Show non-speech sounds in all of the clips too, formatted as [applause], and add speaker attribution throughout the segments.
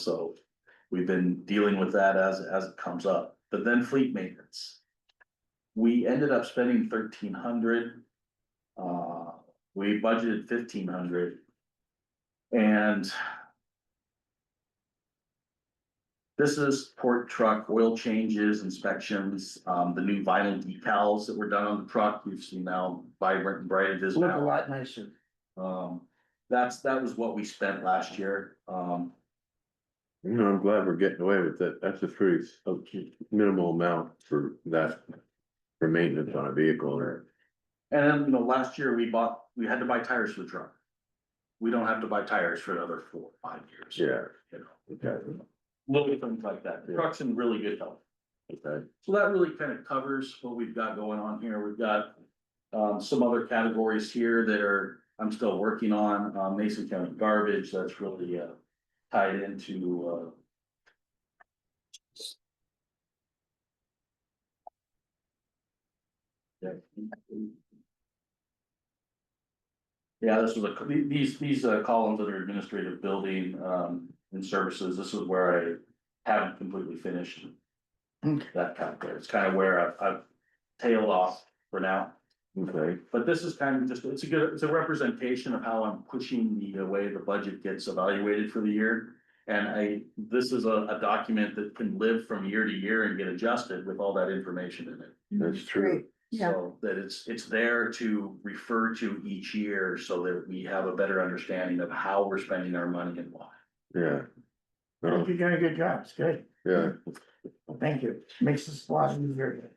Speaker 1: So we've been dealing with that as, as it comes up, but then fleet maintenance. We ended up spending thirteen hundred. Uh, we budgeted fifteen hundred. And. This is port truck oil changes, inspections, um, the new vinyl decals that were done on the truck, we've seen now vibrant and bright it is
Speaker 2: Look a
Speaker 1: now.
Speaker 2: lot nicer.
Speaker 1: Um, that's, that was what we spent last year, um,
Speaker 3: You know, I'm glad we're getting away with that. That's a pretty minimal amount for that. For maintenance on a vehicle or,
Speaker 1: And then, you know, last year we bought, we had to buy tires for the truck. We don't have to buy tires for another four, five years.
Speaker 3: yeah.
Speaker 1: You know,
Speaker 3: Okay.
Speaker 1: little things like that. The
Speaker 3: Yeah.
Speaker 1: truck's in really good health.
Speaker 3: Okay.
Speaker 1: So that really kind of covers what we've got going on here. We've got. Um, some other categories here that are, I'm still working on, uh, Mason County garbage, that's really, uh, tied into, uh. Yeah. Yeah, this was a, these, these, uh, columns that are administrative building, um, and services, this is where I haven't completely finished
Speaker 2: Mm.
Speaker 1: that kind of, it's kind of where I've, I've tailed off for now.
Speaker 2: Mm-hmm.
Speaker 3: Okay,
Speaker 1: But this is kind of just, it's a good, it's a representation of how I'm pushing the way the budget gets evaluated for the year. And I, this is a, a document that can live from year to year and get adjusted with all that information in it.
Speaker 3: that's true.
Speaker 2: Yeah.
Speaker 1: So that it's, it's there to refer to each year so that we have a better understanding of how we're spending our money and why.
Speaker 3: Yeah.
Speaker 2: I
Speaker 3: No,
Speaker 2: think you're doing a good job. It's good.
Speaker 3: yeah,
Speaker 2: Thank you. Makes this a lot easier.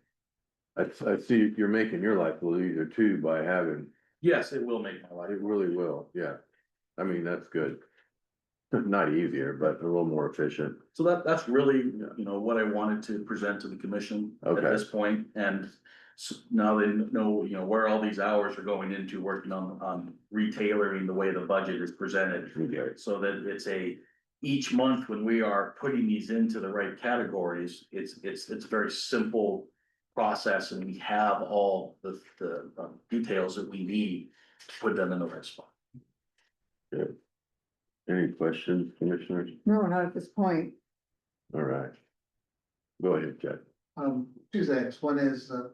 Speaker 3: I, I see you're making your life a little easier too by having,
Speaker 1: Yes, it will make my life.
Speaker 3: it really will, yeah. I mean, that's good. [laughs] Not easier, but a little more efficient.
Speaker 1: So that, that's really, you know, what I wanted to present to the commission at
Speaker 3: Okay.
Speaker 1: this point, and. s- Now they know, you know, where all these hours are going into working on, on retailoring the way the budget is presented.
Speaker 3: Okay.
Speaker 1: So that it's a, each month when we are putting these into the right categories, it's, it's, it's a very simple. Process and we have all the, the um, details that we need to put them in the right spot.
Speaker 3: Any questions, commissioners?
Speaker 4: No, not at this point.
Speaker 3: All right. Go ahead, Jack.
Speaker 5: Um, two things, one is, uh.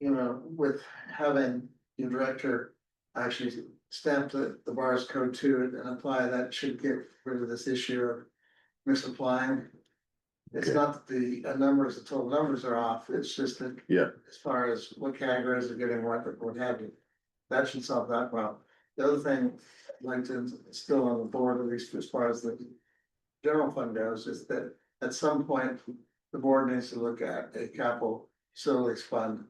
Speaker 5: You know, with having your director actually stamp the, the bars code to it and apply, that should get rid of this issue of misapplying. It's
Speaker 3: Okay.
Speaker 5: not that the uh, numbers, the total numbers are off, it's just that.
Speaker 3: Yeah.
Speaker 5: As far as what categories are getting what, or what have you, that should solve that problem. The other thing, I'd like to, still on the board, at least as far as the general fund goes, is that at some point, the board needs to look at a capital facilities fund.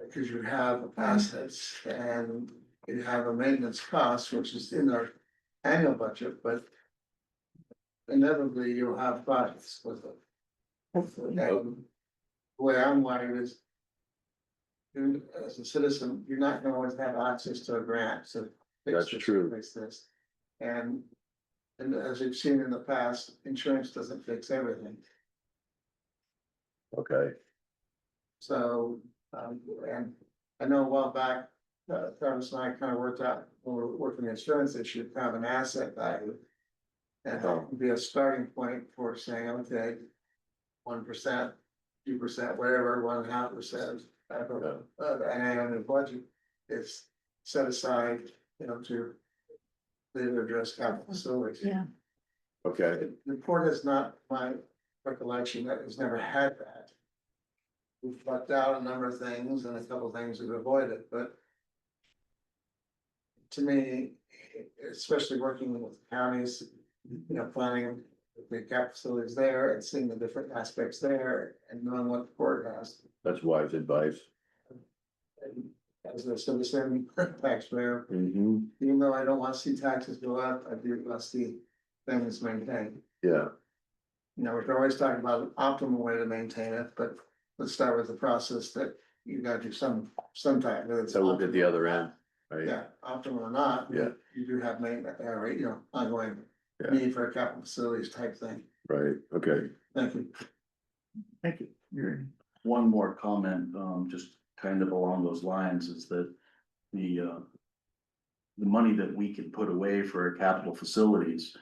Speaker 5: Because you have assets and you have a maintenance cost, which is in our annual budget, but. Inevitably, you'll have funds with it.
Speaker 2: Hopefully.
Speaker 5: And The way I'm wired is. you as a citizen, you're not gonna always have access to a grant, so. fix
Speaker 3: That's
Speaker 5: this,
Speaker 3: true.
Speaker 5: Fix this, and, and as we've seen in the past, insurance doesn't fix everything.
Speaker 3: Okay,
Speaker 5: So, um, and I know a while back, uh, Travis and I kind of worked out, when we were working the insurance issue, kind of an asset value. And that would be a starting point for saying, okay, one percent, two percent, whatever, one and a half percent. of- Of of an annual budget is set aside, you know, to. They address capital facilities.
Speaker 4: Yeah.
Speaker 3: okay.
Speaker 5: The the court is not my recollection, that has never had that. We've fucked out a number of things and a couple of things we've avoided, but. To me, especially working with counties, you know, planning the cap facilities there and seeing the different aspects there and knowing what the court has.
Speaker 3: That's wise advice.
Speaker 5: And As a citizen taxpayer,
Speaker 3: Mm-hmm.
Speaker 5: even though I don't want to see taxes go up, I do want to see things maintained.
Speaker 3: Yeah,
Speaker 5: you know, we're always talking about an optimal way to maintain it, but let's start with the process that you gotta do some, sometime. whether it's
Speaker 3: so look at the
Speaker 5: optimal
Speaker 3: other
Speaker 5: or
Speaker 3: end,
Speaker 5: not.
Speaker 3: right?
Speaker 5: Yeah, optimal or not.
Speaker 3: Yeah.
Speaker 5: You do have maintenance, uh, right, you know, ongoing
Speaker 3: Yeah.
Speaker 5: need for a capital facilities type thing.
Speaker 3: Right, okay.
Speaker 5: Thank you.
Speaker 2: Thank you. You're,
Speaker 1: One more comment, um, just kind of along those lines is that the, uh. the money that we can put away for capital facilities.